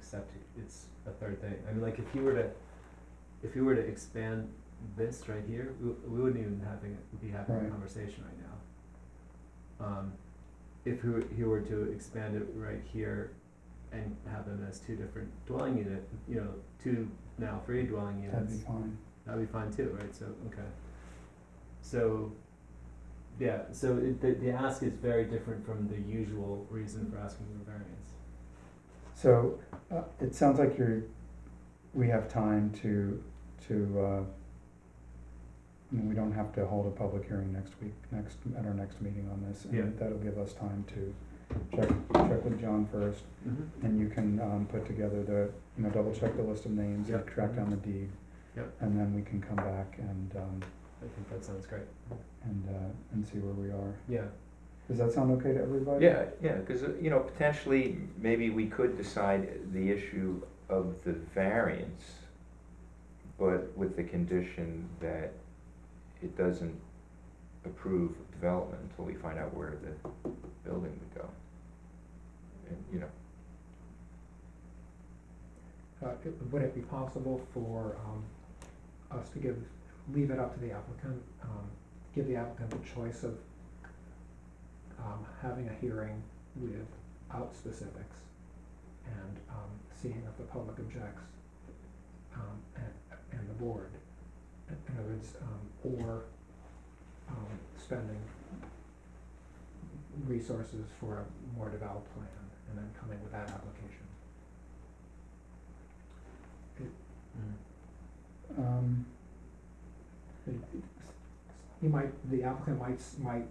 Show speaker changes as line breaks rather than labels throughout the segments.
septic, it's a third thing. I mean, like, if you were to, if you were to expand this right here, we, we wouldn't even having, be having a
Right.
conversation right now. Um, if he were, he were to expand it right here and have them as two different dwelling unit, you know, two, now three dwelling
that'd
units,
be fine.
that'd be fine too, right? So, okay. So, yeah, so it, the, the ask is very different from the usual reason for asking for variance.
So, uh, it sounds like you're, we have time to, to, uh, I mean, we don't have to hold a public hearing next week, next, at our next meeting on this. and
Yeah.
That'll give us time to check, check with John first,
Mm-hmm.
and you can, um, put together the, you know, double check the list of names,
Yep.
track down the deed.
Yep.
And then we can come back and, um,
I think that sounds great.
and, uh, and see where we are.
Yeah.
Does that sound okay to everybody?
Yeah, yeah, because, you know, potentially, maybe we could decide the issue of the variance, but with the condition that it doesn't approve development until we find out where the building would go. And, you know,
Uh, it- Would it be possible for um, us to give, leave it up to the applicant, um, give the applicant the choice of um, having a hearing without specifics and um, seeing if the public objects um, and, and the board? In in other words, um, or um, spending resources for a more developed plan and then coming with that application.
Mm-hmm. Um,
He might, the applicant might, s- might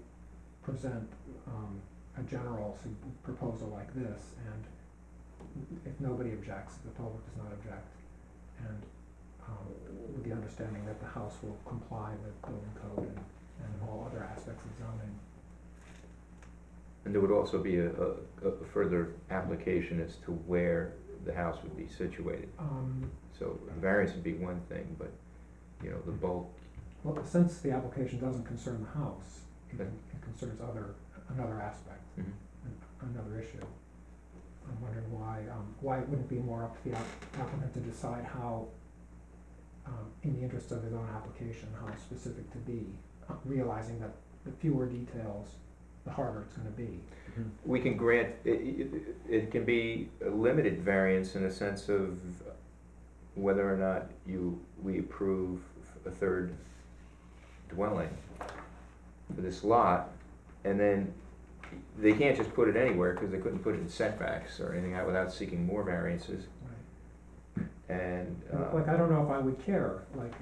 present, um, a general s- proposal like this, and if nobody objects, the public does not object, and, um, with the understanding that the house will comply with building code and, and all other aspects of zoning.
and there would also be a, a, a further application as to where the house would be situated.
Um,
So a variance would be one thing, but, you know, the bulk,
well, since the application doesn't concern the house, it,
Okay.
it concerns other, another aspect.
Mhm.
an- another issue. I'm wondering why, um, why it wouldn't be more up to the app- applicant to decide how, um, in the interest of his own application, how specific to be, uh, realizing that the fewer details, the harder it's gonna be.
We can grant, it, it, it can be a limited variance in the sense of whether or not you, we approve a third dwelling for this lot, and then they can't just put it anywhere, because they couldn't put it in setbacks or anything out without seeking more variances,
Right.
and,
And, Like, I
uh,
don't know if I would care, like,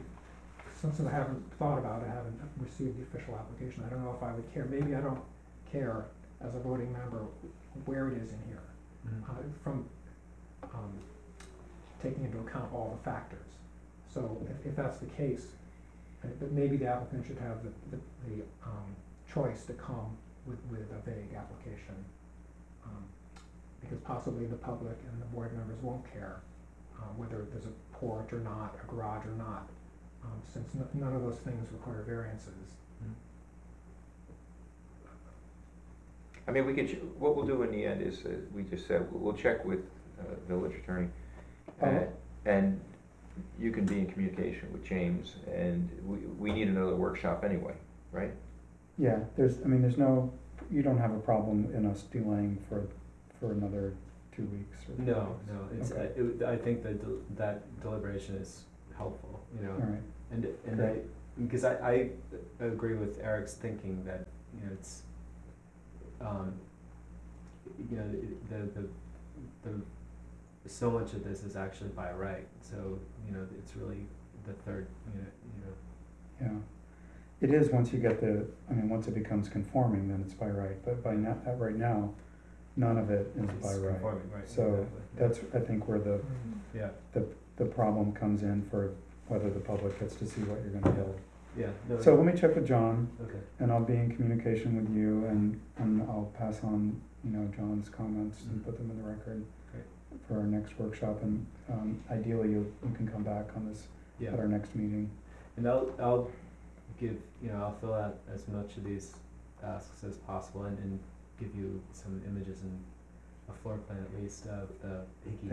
since I haven't thought about it, I haven't received the official application, I don't know if I would care, maybe I don't care as a voting member where it is in here. uh, from um, taking into account all the factors. So if, if that's the case, uh, but maybe the applicant should have the, the, the um, choice to come with, with a vague application. um, Because possibly the public and the board members won't care uh, whether there's a porch or not, a garage or not, um, since n- none of those things require variances.
I mean, we could, ch- what we'll do in the end is, uh, we just said, we'll we'll check with, uh, village attorney,
Uh,
And, and you can be in communication with James, and we, we need another workshop anyway, right?
Yeah, there's, I mean, there's no, you don't have a problem in us delaying for, for another two weeks or? three
No,
weeks?
no, it's,
Mm-hmm. Okay.
I, it, I think that del- that deliberation is helpful, you know,
All right,
and, and I,
Great.
because I, I agree with Eric's thinking that, you know, it's, um, you know, it- the, the, the, so much of this is actually by right, so, you know, it's really the third unit, you know,
yeah. It is, once you get the, I mean, once it becomes conforming, then it's by right, but by now, at right now, none of it is by
it's
right.
conforming, right,
So
exactly, yeah.
That's, I think, where the,
Yeah,
the problem comes in for whether the public gets to see what you're gonna build.
yeah, no,
So let me check with John,
okay,
and I'll be in communication with you, and, and I'll pass on, you know, John's comments and
Mhm.
put them in the record
Great.
for our next workshop, and, um, ideally, you, you can come back on this
yeah.
at our next meeting.
And I'll, I'll give, you know, I'll fill out as much of these asks as possible and, and give you some images and a floor plan at least of the Hickey